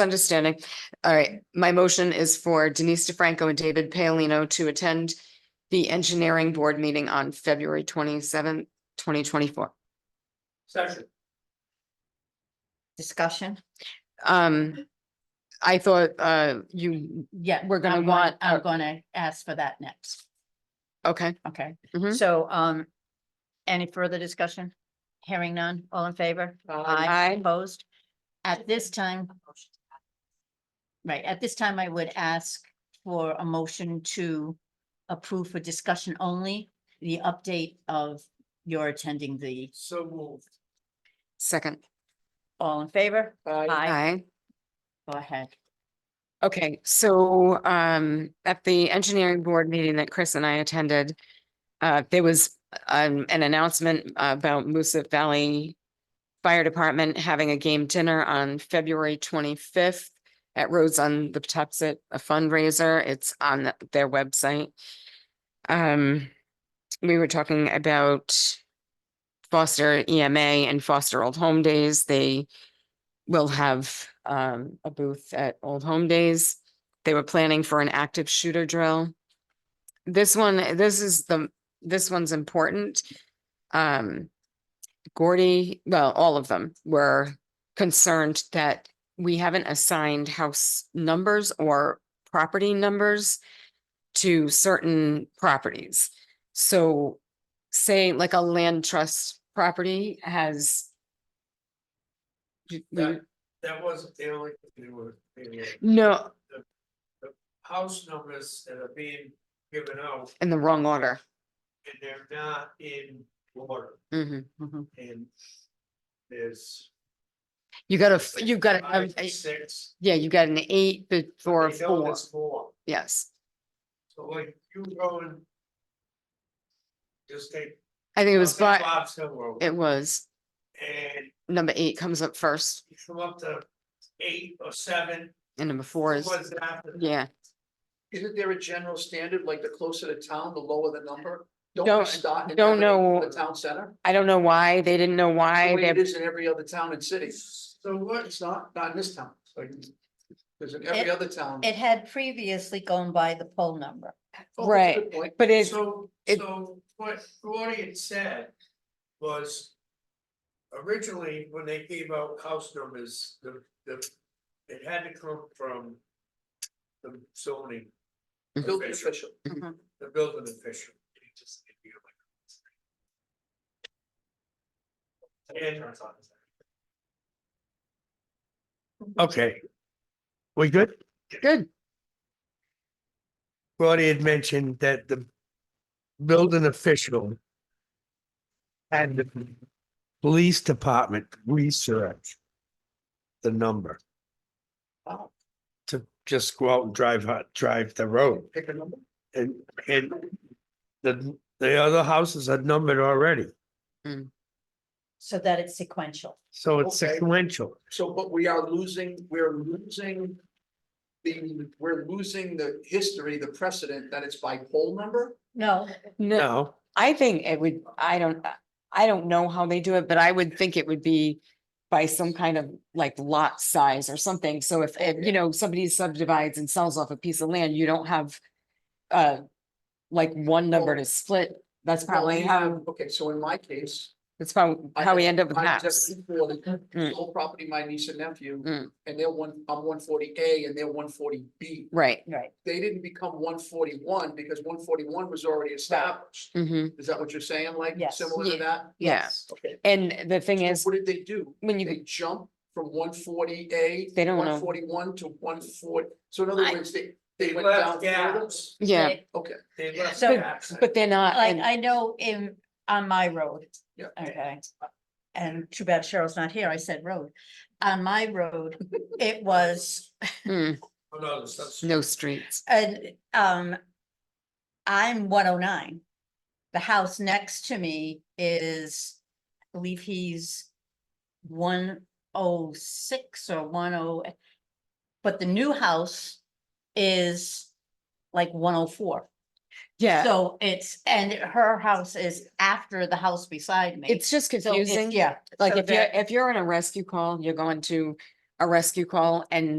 misunderstanding. All right, my motion is for Denise DeFranco and David Paolino to attend the engineering board meeting on February twenty seventh, twenty twenty four. Second. Discussion? Um, I thought, uh, you, Yeah. We're gonna I'm want I'm our- gonna ask for that next, okay, okay? Mhm. So, um, any further discussion? Hearing none, all in favor? Aye. Opposed? At this time. Right, at this time, I would ask for a motion to approve for discussion only, the update of your attending the, So moved. second, all in favor? aye. Go ahead. Okay, so um at the engineering board meeting that Chris and I attended, uh there was um an announcement about Moosup Valley Fire Department having a game dinner on February twenty-fifth at Rhodes on the Patuxent, a fundraiser. It's on the- their website. Um, we were talking about Foster EMA and Foster Old Home Days. They will have um a booth at Old Home Days. They were planning for an active shooter drill. This one, this is the, this one's important. Um, Gordy, well, all of them were concerned that we haven't assigned house numbers or property numbers to certain properties. So say like a land trust property has That, that wasn't the only, there were, there were no, house numbers that are being given out in the wrong order. and they're not in order Mhm. Mhm. and there's. You got a, you got, Five, a- a- Six. yeah, you got an eight before a They know four, there's Four, yes. so like you going. Just take. I think it was, I'll take but Bob's Hill Road it was, and number eight comes up first you come up to eight or seven. and number four is, What's after? that? yeah. Isn't there a general standard, like the closer to town, the lower the number? Don't we Don't- start and don't have it know in The town center? I don't know why, they didn't know why, The way It they, is in every other town and city. So what? It's not, not in this town. It's like, There's in every Eh, It- other town. It had previously gone by the poll number. Oh, that's a right. good point. but it's, So, it- so what Gordy had said was. Originally, when they gave out house numbers, the, the, it had to come from. The zoning, Mm-hmm. Building official. the building official. And. Okay. We good? good, Roddy had mentioned that the building official had the police department research the number Wow, to just go out and drive, hot- drive the road Pick a number. and, and the, the other houses are numbered already, So that it's sequential. so it's Okay. sequential. So, but we are losing, we're losing the, we're losing the history, the precedent that it's by poll number? No, no, No, I think it would, I don't, I don't know how they do it, but I would think it would be by some kind of like lot size or something, so if, if, you know, somebody subdivides and sells off a piece of land, you don't have uh, like one number to split, that's probably Well, we how have- Okay, so in my case, That's how, I how we had- end up with I'm maps. just for the Mm. Whole property, my niece and nephew, Mm. and they're one, I'm one forty A and they're one forty B. Right. right. They didn't become one forty one because one forty one was already established. hmm Is that what you're saying? Like Yes. similar to Yeah. that? Yeah. Okay. And the thing So is, What did they do? when They you, jump from one forty A. They don't know. One forty one to one forty, so in other I- words, they, they They went down. left further? gaps. yeah, Okay, they left So- gaps. but they're not, Like, and- I know in, on my road, yeah. okay. And too bad Cheryl's not here, I said road. On my road, it was, mm, Oh, no, that's- no streets. and, um, I'm one oh nine. The house next to me is, I believe he's one oh six or one oh, but the new house is like one oh four. Yeah, So it's, and her house is after the house beside me. it's just So it's- confusing. Yeah. Like so if you're, that- if you're in a rescue call, you're going to a rescue call and